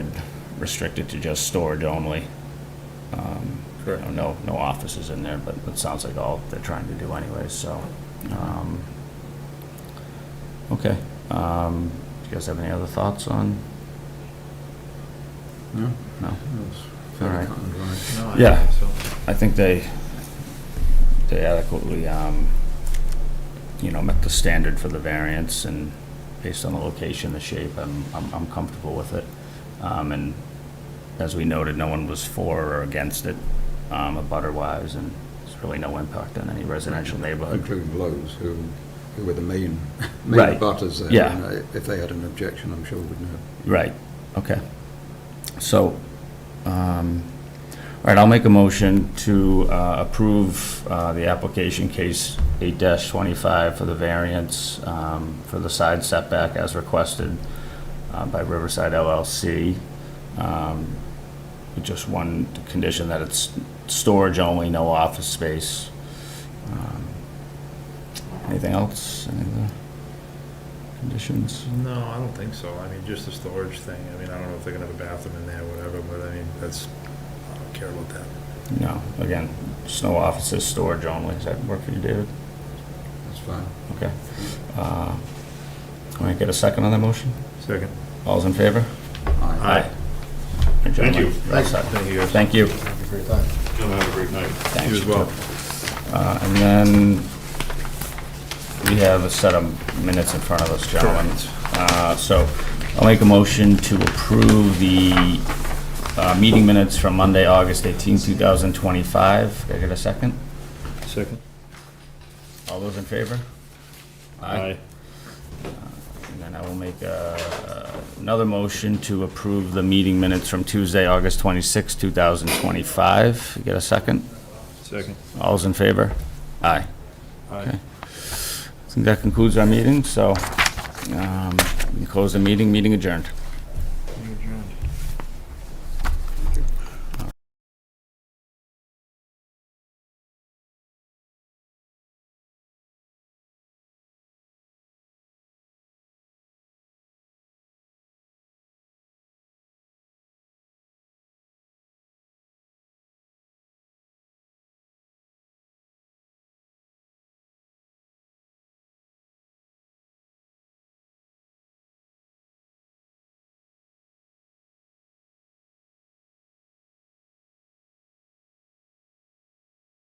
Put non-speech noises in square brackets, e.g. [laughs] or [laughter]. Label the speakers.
Speaker 1: restricted to just storage only. You
Speaker 2: Correct.
Speaker 1: know, No, no offices in there, but it sounds like all they're trying to do anyways, so. um, Okay. um, Do you guys have any other thoughts on?
Speaker 2: No.
Speaker 1: No?
Speaker 2: All
Speaker 1: All right.
Speaker 2: right.
Speaker 3: No, I
Speaker 1: Yeah.
Speaker 3: don't think so.
Speaker 1: I think they, they adequately, um, you know, met the standard for the variance and based on the location, the shape, I'm, I'm, I'm comfortable with it. Um, and as we noted, no one was for or against it, um, abutter-wise, and there's really no impact on any residential neighborhood.
Speaker 2: Including Lowe's, who, who were the main, [laughs]
Speaker 1: Right.
Speaker 2: main butters there.
Speaker 1: Yeah.
Speaker 2: and, uh, If they had an objection, I'm sure we'd know.
Speaker 1: Right, okay. So, um, all right, I'll make a motion to uh, approve uh, the application case eight twenty-five for the variance um, for the side setback as requested uh, by Riverside LLC. Um, with Just one condition that it's storage only, no office space. Um, Anything else? Any other conditions?
Speaker 3: No, I don't think so. I mean, just the storage thing. I mean, I don't know if they're gonna have a bathroom in there, whatever, but I mean, that's, I don't care about that.
Speaker 1: No, again, just no offices, storage only. Does that work for you, David?
Speaker 2: That's fine.
Speaker 1: Okay. Uh, Can I get a second on that motion?
Speaker 3: Second.
Speaker 1: All's in favor?
Speaker 2: Aye.
Speaker 1: Thank
Speaker 3: you.
Speaker 1: Thank
Speaker 3: Thank you guys.
Speaker 1: Thank you.
Speaker 3: Thank you for your time.
Speaker 4: You'll have a great night.
Speaker 1: Thanks.
Speaker 3: You as well.
Speaker 1: Uh, And then we have a set of minutes in front of us, gentlemen. Uh, So I'll make a motion to approve the uh, meeting minutes from Monday, August 18, 2025. Can I get a second?
Speaker 4: Second?
Speaker 1: All those in favor?
Speaker 4: Aye.
Speaker 1: And then I will make uh, another motion to approve the meeting minutes from Tuesday, August 26, 2025. Get a second?
Speaker 4: Second?
Speaker 1: All's in favor? Aye.
Speaker 4: Aye.
Speaker 1: I think that concludes our meeting, so um, we close the meeting, meeting adjourned.